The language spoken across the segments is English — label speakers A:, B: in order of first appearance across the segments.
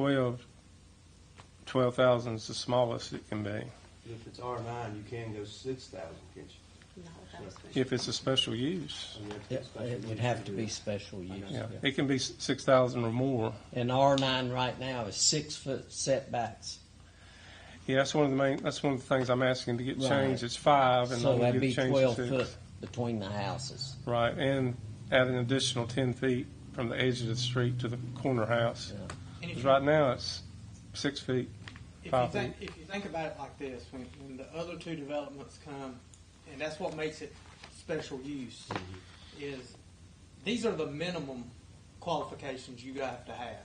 A: 12, 12,000 is the smallest it can be,
B: If it's R nine, you can go six thousand, can't you?
A: if it's a special use.
B: I mean, if
C: It
B: it's special
C: it
B: use,
C: would have
B: you
C: to
B: do
C: be
B: it.
C: special use.
A: Yeah,
C: yeah.
A: it can be s- 6,000 or more.
C: And R nine right now is six foot setbacks.
A: Yeah, that's one of the main, that's one of the things I'm asking to get
C: Right.
A: changed, it's five, and
C: So
A: then
C: that'd
A: we
C: be
A: get changed
C: twelve
A: to
C: foot
A: six.
C: between the houses.
A: Right, and add an additional 10 feet from the edge of the street to the corner house.
C: Yeah.
D: And if
A: 'Cause
D: you-
A: right now, it's six feet.
D: If you
A: Five
D: think, if you think about it like this, when, when the other two developments come, and that's what makes it special use, is these are the minimum qualifications you have to have.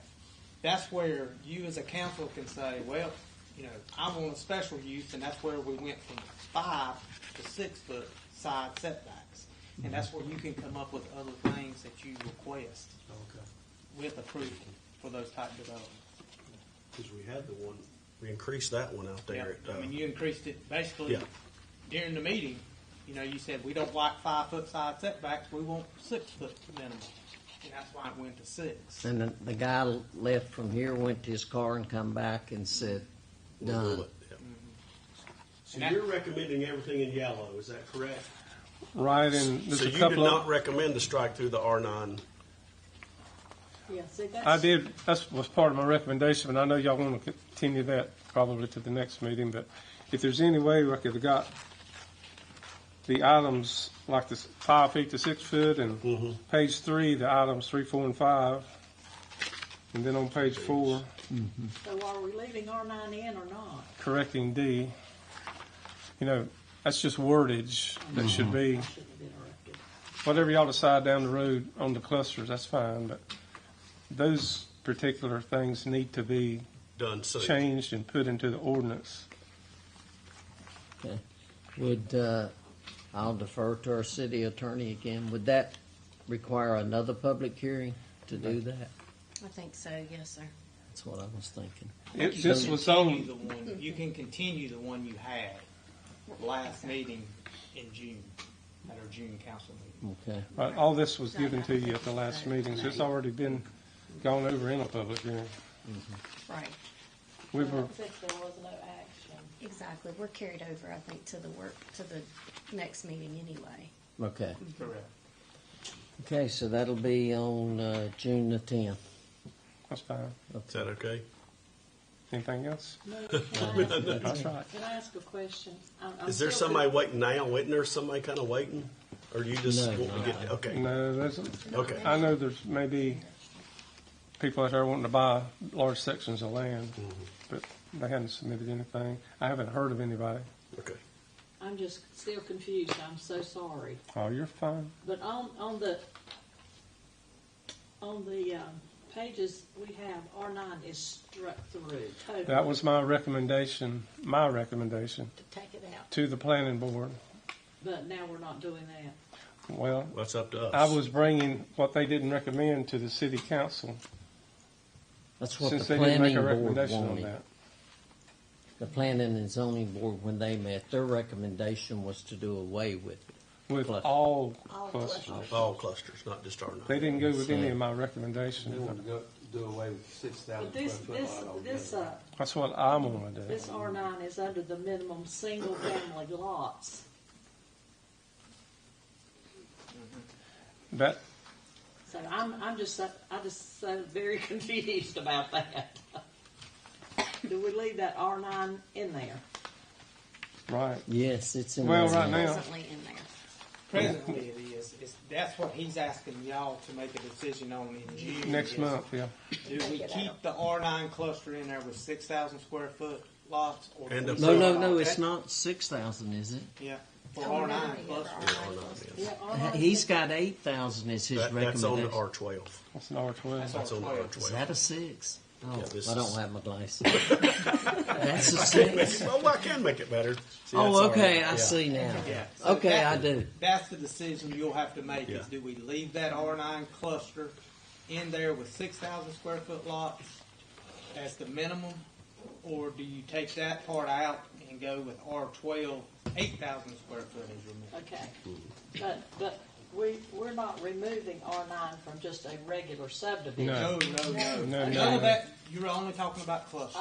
D: That's where you as a council can say, well, you know, I want a special use, and that's where we went from five to six foot side setbacks. And that's where you can come up with other things that you request
B: Okay.
D: with approval for those type developments.
E: Because we had the one, we increased that one out
D: Yeah,
E: there. at,
D: I
E: uh,
D: mean, you increased it basically
E: Yeah.
D: during the meeting, you know, you said, we don't like five foot side setbacks, we want six foot minimum. And that's why it went to six.
C: And the- the guy left from here, went to his car and come back and said,
E: we'll do
C: done.
E: it, yeah.
F: Mm-hmm.
D: And
E: So
D: that-
E: you're recommending everything in yellow, is that correct?
A: Right, and there's
E: So
A: a
E: you did
A: couple
E: not
A: of,
E: recommend to strike through the R nine?
F: Yeah, see, that's.
A: I did, that was part of my recommendation, but I know y'all want to continue that probably to the next meeting, but if there's any way we could have got the items like this five feet to six foot and page three, the items three, four, and five. And then on page four,
F: So are we leaving R nine in or not?
A: correcting D. You know, that's just wordage that should be,
F: I shouldn't have interrupted.
A: whatever y'all decide down the road on the clusters, that's fine, but those particular things need to be
E: Done soon.
A: changed and put into the ordinance.
C: Okay. Would, uh, I'll defer to our city attorney again. Would that require another public hearing to do that?
G: I think so, yes, sir.
C: That's what I was thinking.
A: It,
D: You
A: this
D: can
A: was
D: continue
A: on,
D: the one- You can continue the one you had last meeting in June, at our June council meeting.
C: Okay.
A: right, all this was given to you at the last meeting, so it's already been gone over in a public hearing.
G: Right,
A: We were,
F: Since there was no action.
G: exactly. We're carried over, I think, to the work, to the next meeting anyway.
C: Okay.
D: Correct.
C: Okay, so that'll be on, uh, June the tenth.
A: that's fine.
E: Is that okay?
A: Anything else?
F: No, Can I ask-
A: That's right.
F: can I ask a question? I'm- I'm
E: Is there
F: still-
E: somebody waiting now? Isn't there somebody kind of waiting? Or you just
C: No,
E: want to get,
C: no.
E: okay,
A: No, there's,
E: okay.
A: I know there's maybe people out there wanting to buy large sections of land, but they hadn't submitted anything. I haven't heard of anybody.
E: Okay.
F: I'm just still confused, I'm so sorry.
A: Oh, you're fine.
F: But on, on the, on the, um, pages we have, R nine is struck through totally.
A: That was my recommendation, my recommendation
G: To take it out.
A: to the planning board.
F: But now we're not doing that.
A: Well,
E: That's up to us.
A: I was bringing what they didn't recommend to the city council
C: That's what the
A: since they didn't make
C: planning
A: a
C: board
A: recommendation on
C: wanted.
A: that.
C: The planning and zoning board, when they met, their recommendation was to do away with it.
A: With
C: Cluster.
A: all
G: All
A: clusters.
E: All clusters, not just R nine.
A: They didn't go with any of my
B: They want to
A: recommendations.
B: go, do away with six thousand
F: But this,
B: square
F: this,
B: foot lot
F: this,
B: altogether.
F: uh,
A: That's what I'm gonna do.
F: this R nine is under the minimum single family lots.
A: That,
F: So I'm, I'm just, so- I just so very confused about that. Do we leave that R nine in there?
A: right.
C: Yes, it's in.
A: Well,
C: there
A: right now-
G: Presently in there.
D: Presently it is, it's, that's what he's asking y'all to make a decision on in June.
A: Next
D: is
A: month, yeah.
D: Do we keep the R nine cluster in there with six thousand square foot lots? or do
E: And
D: we
E: the-
C: No,
D: sell
C: no,
D: it
C: no,
D: all?
C: it's not six thousand, is it?
D: Yeah, for R nine cluster.
E: Or not, yeah.
F: Yeah, R nine.
C: Uh, He's got eight thousand as his
E: That- That's on the
C: recommendation.
E: R twelve.
A: That's an R twelve.
E: That's on the R
C: Is
E: twelve.
C: that a six? Oh,
E: Yeah, this
C: I
E: is-
C: don't have my glasses. That's a six.
E: Well, I can make it better. See, that's
C: Oh,
E: all
C: okay,
E: right.
C: I
E: Yeah.
C: see now.
D: Yeah. So
C: Okay, I
D: that-
C: do.
D: That's the decision you'll have to make
E: Yeah.
D: is do we leave that R nine cluster in there with six thousand square foot lots as the minimum? Or do you take that part out and go with R 12, 8,000 square foot as your minimum?
F: Okay, but, but we, we're not removing R nine from just a regular subdivision.
A: No.
D: No, no, no.
A: Uh, No, no,
D: None
A: no.
D: of that, you're only talking about clusters.